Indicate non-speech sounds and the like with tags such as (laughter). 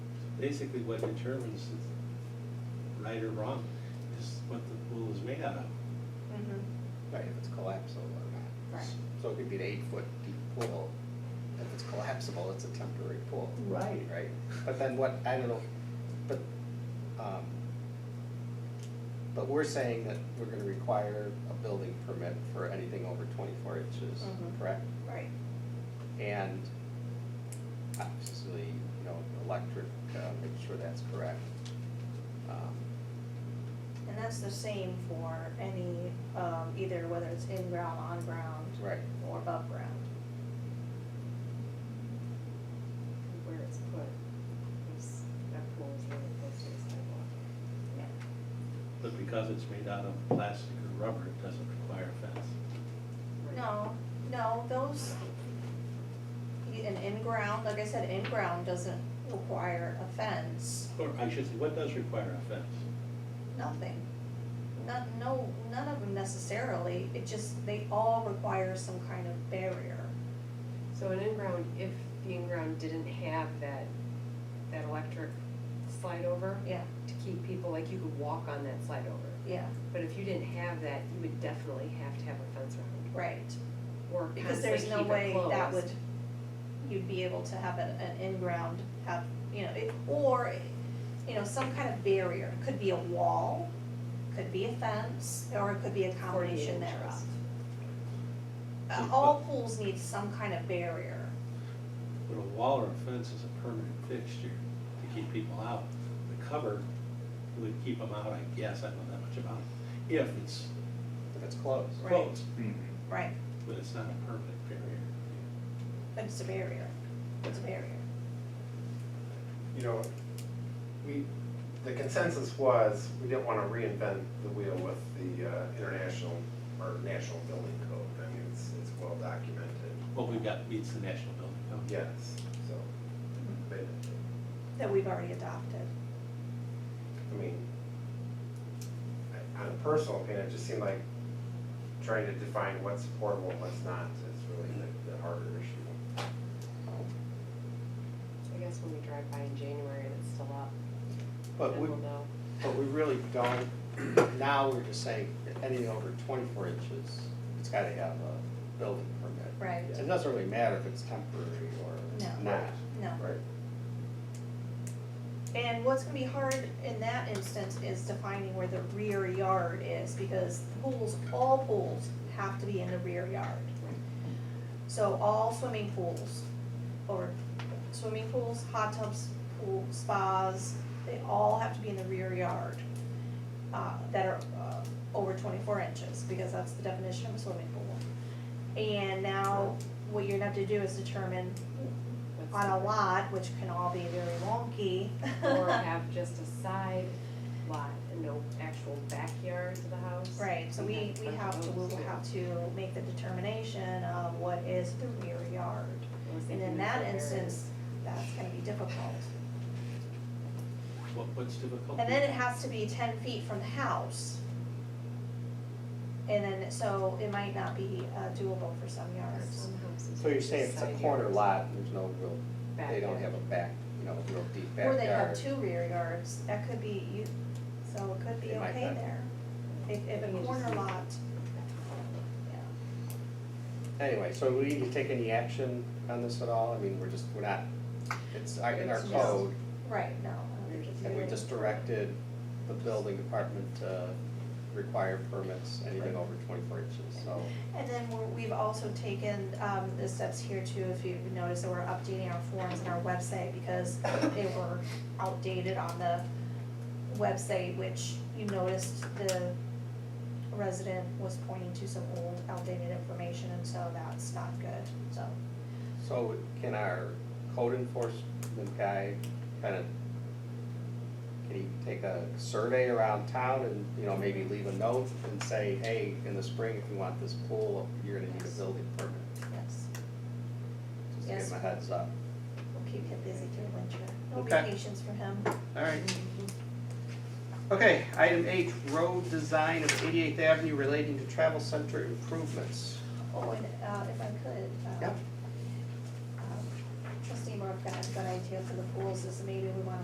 basically what determines if right or wrong is what the pool is made out of. Mm-hmm. Right, if it's collapsible or not. Right. So it could be an eight-foot deep pool. If it's collapsible, it's a temporary pool. Right. Right, but then what, I don't know, but, um, but we're saying that we're gonna require a building permit for anything over twenty-four inches, Mhm. correct? Right. And obviously, you know, electric, uh, make sure that's correct. Um, And that's the same for any, um, either whether it's in ground, on ground. Right. Or above ground. where it's put, it's, that pool is really close to the sidewalk. Yeah. But because it's made out of plastic or rubber, it doesn't require a fence. Right. No, no, those, an in-ground, like I said, in-ground doesn't require a fence, Or I should say, what does require a fence? nothing. Not, no, none of them necessarily, it just, they all require some kind of barrier. So an in-ground, if the in-ground didn't have that, that electric slide over Yeah, to keep people, like you could walk on that slide over. yeah, But if you didn't have that, you would definitely have to have a fence around right. or Because constantly there's keep no way it closed. that would, you'd be able to have an, an in-ground, have, you know, it, or, you know, some kind of barrier. Could be a wall, could be a fence, or it could be a combination inches. thereof. Uh, All pools need some kind of barrier. But a wall or a fence is a permanent fixture to keep people out. The cover would keep them out, I guess, I don't know that much about it, if it's If it's closed. Right. closed, Right. but it's not a permanent barrier. But it's a barrier, it's a barrier. you know, we, the consensus was, we didn't wanna reinvent the wheel with the uh, international or national building code. I mean, it's, it's well documented, What we've got meets the National Building Code. yes, so, Mm-hmm. but, That we've already adopted. I mean, I- on a personal opinion, it just seemed like trying to define what's affordable and what's not is really the, the harder issue. I guess when we drive by in January and it's still up, But then we, we'll know. But we really don't, now we're just saying, that anything over twenty-four inches, it's gotta have a building permit. Right. It doesn't really matter if it's temporary No. or not. No. Right. And what's gonna be hard in that instance is defining where the rear yard is, because pools, all pools have to be in the rear yard. So all swimming pools, or swimming pools, hot tubs, pool, spas, they all have to be in the rear yard, uh, that are, uh, over twenty-four inches, because that's the definition of a swimming pool. And now, what you're gonna have to do is determine What's on a the- lot, which can all be very wonky. Or (laughs) have just a side lot and no actual backyard to the house. Right, so we, we have to, we Those, will yeah. have to make the determination of what is the rear yard. I was And Oh, thinking in that of the instance, that's gonna be difficult. What, what's difficult? And then it has to be ten feet from the house. And then, so it might not be uh, doable for some variance. yards. Some houses So you're have saying it's a side corner yards. lot, and there's no real, they don't Backyard. have a back, you know, real deep Or backyard. they have two rear yards, that could be, you, so it could be It might okay not. there. If, if You a just corner need- lot, yeah. Anyway, so we need to take any action on this at all? I mean, we're just, we're not, it's our- in our It's just- code, Right, no. um, I don't think it's and we really- just directed the building department to require permits, anything over twenty-four inches, so. And then we're, we've also taken, um, the steps here too, if you've noticed, that we're updating our forms and our website because they were outdated on the website, which you noticed the resident was pointing to some old outdated information, and so that's not good, so. So can our code enforcement guy kind of, can he take a survey around town and, you know, maybe leave a note and say, hey, in the spring, if you want this pool, you're gonna need a building permit, Yes, just to give Yes. him a heads up. we'll keep him busy through winter, no Okay. vacations for him. All right. Mm-hmm. Okay, item H, road design of Eighty-Eighth Avenue relating to travel center improvements. Oh, and, uh, if I could, Yeah. um, um, trustee Mark got a good idea for the pools, is maybe we wanna